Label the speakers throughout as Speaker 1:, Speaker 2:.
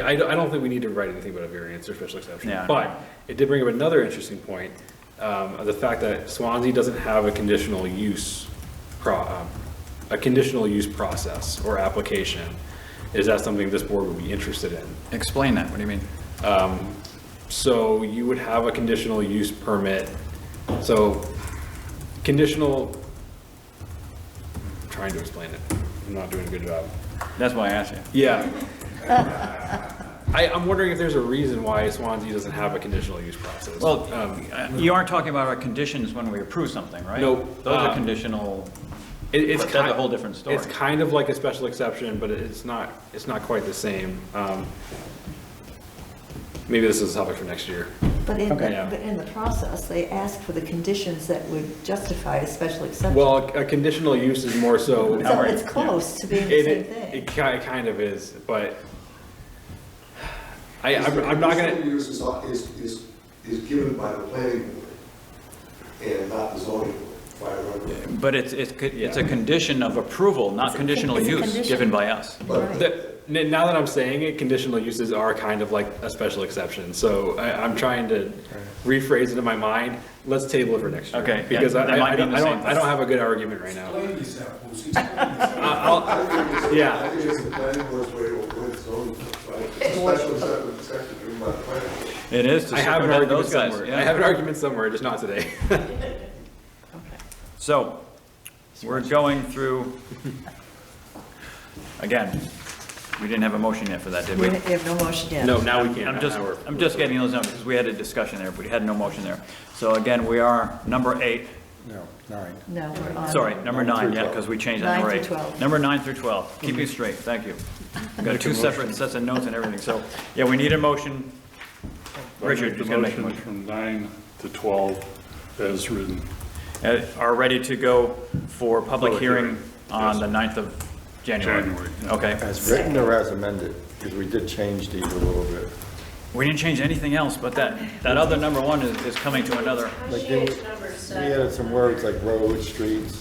Speaker 1: I, I don't I don't think we need to write anything about a variance or special exception.
Speaker 2: Yeah.
Speaker 1: But it did bring up another interesting point, um, of the fact that Swansea doesn't have a conditional use pro, um, a conditional use process or application. Is that something this board would be interested in?
Speaker 2: Explain that, what do you mean?
Speaker 1: So you would have a conditional use permit, so conditional, I'm trying to explain it, I'm not doing a good job.
Speaker 2: That's why I asked you.
Speaker 1: Yeah. I, I'm wondering if there's a reason why Swansea doesn't have a conditional use process.
Speaker 2: Well,
Speaker 1: Um,
Speaker 2: uh, you aren't talking about our conditions when we approve something, right?
Speaker 1: No,
Speaker 2: Those are
Speaker 1: uh,
Speaker 2: conditional,
Speaker 1: it- it's
Speaker 2: but that's a
Speaker 1: ki-
Speaker 2: whole different story.
Speaker 1: It's kind of like a special exception, but it's not, it's not quite the same. Um, Maybe this is a topic for next year.
Speaker 3: But in, the-
Speaker 1: Okay. Yeah.
Speaker 3: but in the process, they asked for the conditions that would justify a special exception.
Speaker 1: Well, a conditional use is more so.
Speaker 3: So
Speaker 2: Alright,
Speaker 3: it's
Speaker 2: yeah.
Speaker 3: close to being the
Speaker 1: It,
Speaker 3: same
Speaker 1: it,
Speaker 3: thing.
Speaker 1: it ki- kind of is, but I, I'm I'm not
Speaker 4: Conditional
Speaker 1: gonna,
Speaker 4: use is, is, is, is given by the planning board and not the zoning board, if I remember.
Speaker 2: But it's, it's, co- it's a condition of approval, not
Speaker 3: a-
Speaker 2: conditional
Speaker 3: it's a
Speaker 2: use
Speaker 3: condition.
Speaker 2: given by us.
Speaker 4: But
Speaker 3: Right.
Speaker 1: the- n- now that I'm saying it, conditional uses are kind of like a special exception, so I, I'm trying to rephrase it in my mind. Let's table it for next year.
Speaker 2: Okay, yeah,
Speaker 1: Because I,
Speaker 2: that might
Speaker 1: I I
Speaker 2: mean
Speaker 1: don't,
Speaker 2: the
Speaker 1: I
Speaker 2: same
Speaker 1: don't, I don't have a good argument right now.
Speaker 5: Explain yourself, Bruce. Explain yourself.
Speaker 1: I'll,
Speaker 4: I think it's-
Speaker 1: Yeah.
Speaker 4: I think it's the planning board's way to avoid zoning, right? It's a Special exception, exception given by the planning board.
Speaker 2: It is to
Speaker 1: I have an
Speaker 2: circumvent
Speaker 1: argument
Speaker 2: those guys.
Speaker 1: somewhere.
Speaker 2: yeah.
Speaker 1: I have an argument somewhere, just not today.
Speaker 2: So, we're going through, again, we didn't have a motion yet for that, did
Speaker 3: We
Speaker 2: we?
Speaker 3: have no motion yet.
Speaker 1: No, now we can't.
Speaker 2: I'm
Speaker 1: Now
Speaker 2: just,
Speaker 1: we're-
Speaker 2: I'm just getting those numbers, because we had a discussion there, but we had no motion there. So again, we are number eight,
Speaker 5: No, nine.
Speaker 3: No, we're on.
Speaker 2: sorry, number nine, yeah, because we changed that
Speaker 3: Nine
Speaker 2: number
Speaker 3: through
Speaker 2: eight.
Speaker 3: 12.
Speaker 2: Number nine through 12, keep you straight, thank you. We've Got two separate sets of notes and everything, so, yeah, we need a motion. Richard is
Speaker 6: the
Speaker 2: going to make a motion.
Speaker 6: From nine to 12 as written.
Speaker 2: Uh, Are ready to go for public
Speaker 6: Public
Speaker 2: hearing
Speaker 6: hearing,
Speaker 2: on
Speaker 6: yes.
Speaker 2: the 9th of January.
Speaker 6: January, yeah.
Speaker 2: Okay.
Speaker 7: As written or as amended, because we did change these a little bit.
Speaker 2: We didn't change anything else, but that, that other number one is, is coming to another.
Speaker 7: Like, didn't- We added some words like roads, streets,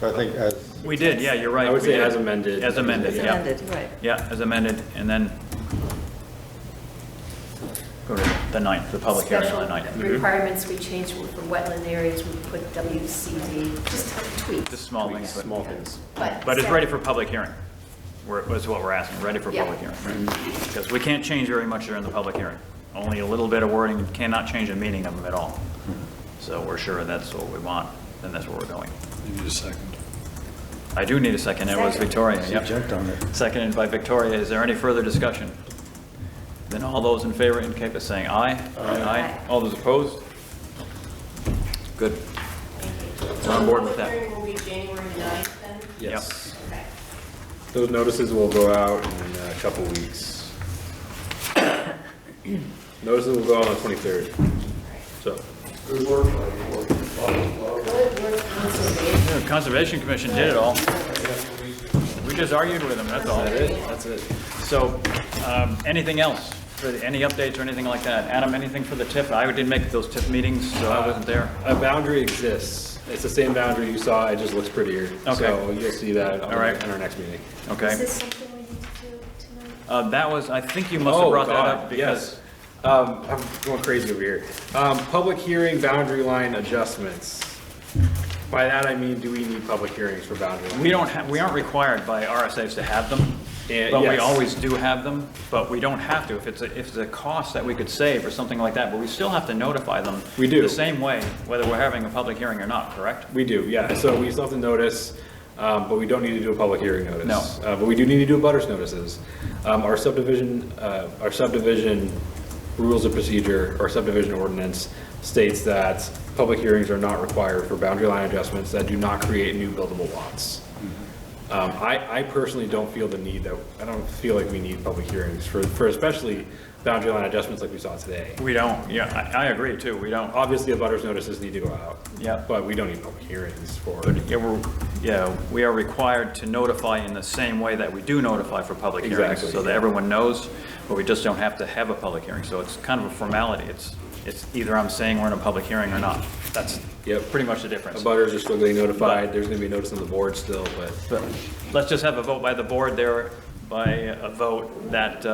Speaker 7: so I think as,
Speaker 2: We did, yeah, you're right.
Speaker 1: I would
Speaker 2: we
Speaker 1: say
Speaker 2: did.
Speaker 1: as amended.
Speaker 2: As amended,
Speaker 3: It's
Speaker 2: yeah.
Speaker 3: amended, right.
Speaker 2: Yeah, as amended, and then go to the 9th, the public hearing Mm-hmm. on the 9th.
Speaker 8: Special requirements we changed were for wetland areas, we put WCD, just a tweak.
Speaker 2: Just small things, but,
Speaker 1: Small things.
Speaker 2: but it's ready for public hearing. We're, that's what we're asking, ready for
Speaker 8: Yeah.
Speaker 2: public hearing. Because we can't change very much during the public hearing. Only a little bit of wording, cannot change the meaning of them at all. So we're sure that's what we want, and that's where we're going.
Speaker 6: You need a second.
Speaker 2: I do need a second, it was
Speaker 8: Second.
Speaker 2: Victoria,
Speaker 7: she
Speaker 2: yep.
Speaker 7: jumped on it.
Speaker 2: Seconded by Victoria. Is there any further discussion? Then all those in favor indicate by saying aye. Aye. All those opposed? Good. We're on board with
Speaker 8: So the
Speaker 2: that.
Speaker 8: public hearing will be January 9th then?
Speaker 1: Yes.
Speaker 8: Okay.
Speaker 1: Those notices will go out in uh, a couple weeks. Notices will go out on the 23rd, so.
Speaker 4: Good work, planning board. Lot of- lot of-
Speaker 8: Good work, conservation.
Speaker 2: The Conservation Commission did it all. We just argued with them, that's all.
Speaker 1: That's it.
Speaker 2: So, um, anything else? For the- Any updates or anything like that? Adam, anything for the TIF? I didn't make those TIF meetings, so I wasn't there.
Speaker 1: A boundary exists. It's the same boundary you saw, it just looks prettier.
Speaker 2: Okay.
Speaker 1: So you'll see that on
Speaker 2: All right.
Speaker 1: our- in our next meeting.
Speaker 2: Okay.
Speaker 8: Is this something we need to do tonight?
Speaker 2: Uh, That was, I think you must have
Speaker 1: Oh,
Speaker 2: brought that
Speaker 1: God,
Speaker 2: up because
Speaker 1: yes. Um, I'm going crazy over here. Um, public hearing boundary line adjustments. By that I mean, do we need public hearings for boundary lines?
Speaker 2: We don't, ha- we aren't required by RSA's to have them,
Speaker 1: Eh,
Speaker 2: but we
Speaker 1: yes.
Speaker 2: always do have them, but we don't have to. If it's, a- if it's a cost that we could save or something like that, but we still have to notify them.
Speaker 1: We do.
Speaker 2: The same way, whether we're having a public hearing or not, correct?
Speaker 1: We do, yeah. So we still have to notice, um, but we don't need to do a public hearing notice.
Speaker 2: No.
Speaker 1: Uh, But we do need to do butters notices. Um, Our subdivision, uh, our subdivision rules of procedure, or subdivision ordinance states that public hearings are not required for boundary line adjustments that do not create new buildable lots.
Speaker 2: Mm-hmm.
Speaker 1: Um, I, I personally don't feel the need that, I don't feel like we need public hearings for, for especially boundary line adjustments like we saw today.
Speaker 2: We don't, yeah, I, I agree too, we don't.
Speaker 1: Obviously, the butters notices need to go out.
Speaker 2: Yeah.
Speaker 1: But we don't need public hearings for.
Speaker 2: Yeah, we're, yeah, we are required to notify in the same way that we do notify for public hearings.
Speaker 1: Exactly,
Speaker 2: So that
Speaker 1: yeah.
Speaker 2: everyone knows, but we just don't have to have a public hearing. So it's kind of a formality. It's, it's either I'm saying we're in a public hearing or not. That's
Speaker 1: Yep.
Speaker 2: pretty much the difference.
Speaker 1: Abutters are still getting notified, there's gonna be a notice on the board still, but
Speaker 2: But let's just have a vote by the board there by a vote that uh,